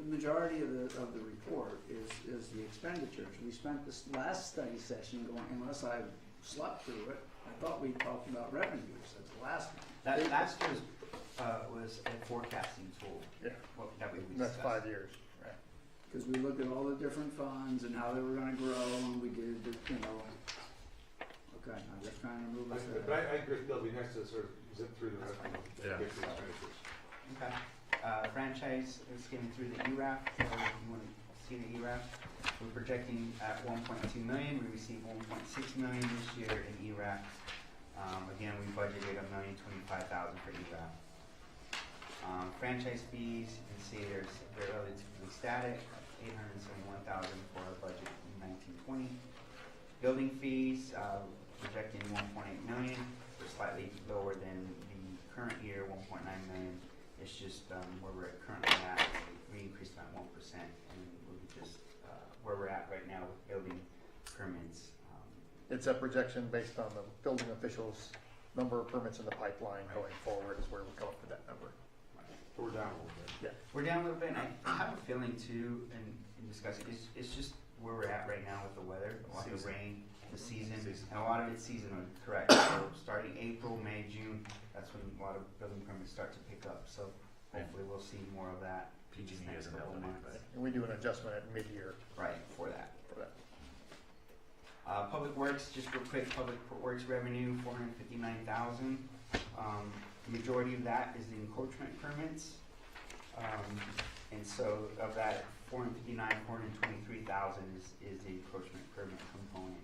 majority of the, of the report is, is the expenditures. We spent this last study session going, unless I slept through it, I thought we talked about revenues, that's the last one. That last year's uh, was a forecasting tool Yeah, what- that we and that's discussed. five years, right? Because we looked at all the different funds and how they were gonna grow, and we did, the you know. Okay, I'm just trying to move us But there. I, I agree, Bill, we have to sort of zip through the That's rest of the Yeah. get to the expenditures. Okay. Uh, franchise is skimming through the E ERAF, so if you want to see the E ERAF, we're projecting at 1.2 million. We received 1.6 million this year in E ERAF. Um, again, we budgeted a million twenty-five thousand for E ERAF. Um, franchise fees, you can see there's, they're relatively static, eight hundred and seventy-one thousand for our budget in nineteen twenty. Building fees, uh, projecting one point eight million, they're slightly lower than the current year, one point nine million. It's just, um, where we're currently at, we increased by one percent, and we're just, uh, where we're at right now with building permits, um, It's a projection based on the building officials' number of permits in the pipeline going forward is where we come up with that number. But we're down a little bit. We're down a little bit, and I have a feeling too, and, and discussing, it's, it's just where we're at right now with the weather, a lot of the Season. rain, the season, Season. and a lot of it's seasonal, correct? So starting April, May, June, that's when a lot of building permits start to pick up, so Yeah. hopefully we'll see more of that. in these PG&E next hasn't couple held months. anybody. And we do an adjustment at mid-year Right, for that. for that. Uh, Public Works, just real quick, Public Works revenue, four hundred fifty-nine thousand. Um, the majority of that is the encroachment permits. Um, and so of that four hundred fifty-nine, four hundred twenty-three thousand is, is the encroachment permit component.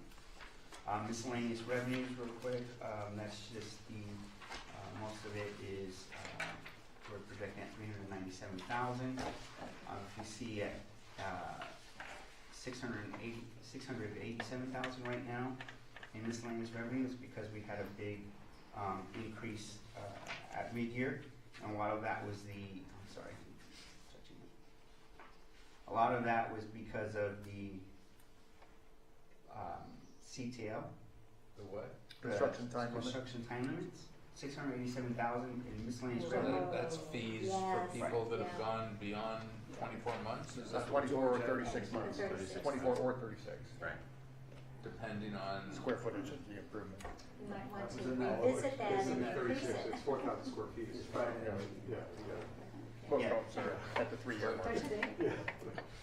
Um, miscellaneous revenues, real quick, um, that's just the, uh, most of it is, uh, we're projecting at three hundred ninety-seven thousand. Um, if you see at, uh, 680 687,000 right now in miscellaneous revenues because we had a big um, increase uh, at mid-year. And a lot of that was the, I'm sorry, I'm touching it. A lot of that was because of the um, CTL. The what? the Construction time limit. Construction time limits, 687,000 in miscellaneous So revenue. that, that's fees for Yes. people that have Yeah. gone beyond twenty-four months, is That's that twenty-four or thirty-six Or months, 36. twenty-four or thirty-six, Right. depending on? square footage of the improvement. You might want to Isn't that- revisit that It's in and the increase thirty-six, it. it's four thousand square feet. It's probably- Yeah, yeah, yeah. Both Yeah. homes are at the three-year mark. Don't you think?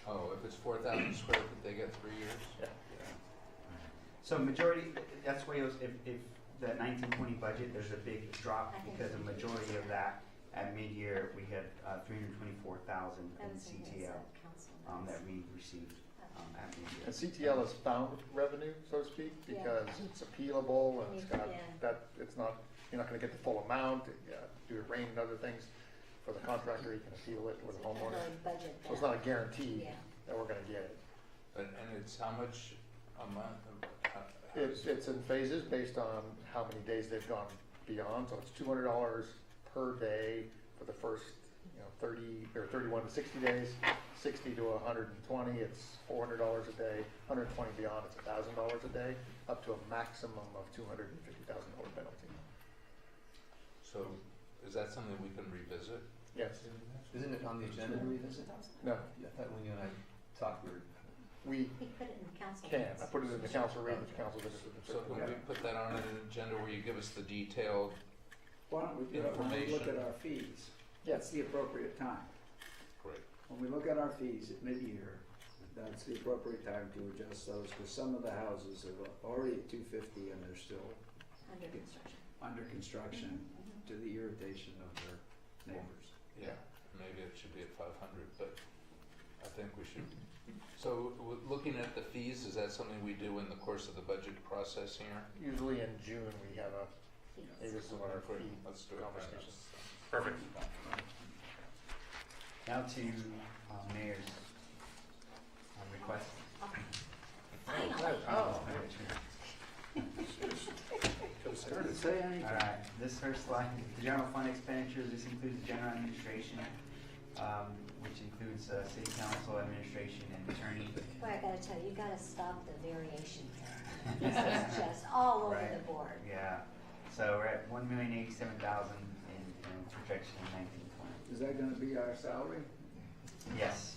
Oh, if it's four thousand square foot, they get three years? So majority, that's why it was, if, if the nineteen twenty budget, there's a big drop because the majority of that at mid-year, we had, uh, three hundred twenty-four thousand That in was in CTL, um, that we received, um, at And mid-year. CTL is found revenue, so to speak, Yeah. because it's appealable and it's got, Yeah. that, it's not, you're not gonna get the full amount, uh, due to rain and other things. For the contractor, you can appeal it with the homeowner, Budget so it's that. not a guarantee Yeah. that we're gonna get it. And, and it's how much a month? uh, how- It's, it's in phases based on how many days they've gone beyond, so it's two hundred dollars per day for the first, you know, thirty, or thirty-one to sixty days. Sixty to hundred and twenty, it's four hundred dollars a day, hundred and twenty beyond, it's thousand dollars a day, up to a maximum of two hundred and fifty thousand dollar penalty. So, is that something we can revisit? Yes, Isn't it on the agenda to revisit? no, Yeah, I thought when you and I talked, we were, we He put it in the council. can, minutes. I put it in the council rate, the council visits. So can we put that on an agenda where you give us the detailed, Why don't we do it when we look at our fees? That's Yes, the appropriate time. Great. When we look at our fees at mid-year, that's the appropriate time to adjust those, because some of the houses are already at two fifty and they're still Under construction. under construction Mhm. to the irritation of their neighbors. yeah, maybe it should be at five hundred, but I think we should. So, w- looking at the fees, is that something we do in the course of the budget process here? usually in June, we have a, hey, Fees. this is what our Great, fee Let's do it then. conversation. Perfect. Now to, uh, mayor's, um, request. Finally. Oh. Did it say anything? Alright, this first slide, the general fund expenditures, this includes the general administration, um, which includes, uh, city council, administration, and attorney. Boy, I gotta tell you, you gotta stop the variation thing. This is just all over the Right. board. Yeah, so we're at one million eighty-seven thousand in, in projection in nineteen twenty. Is that gonna be our salary? Yes,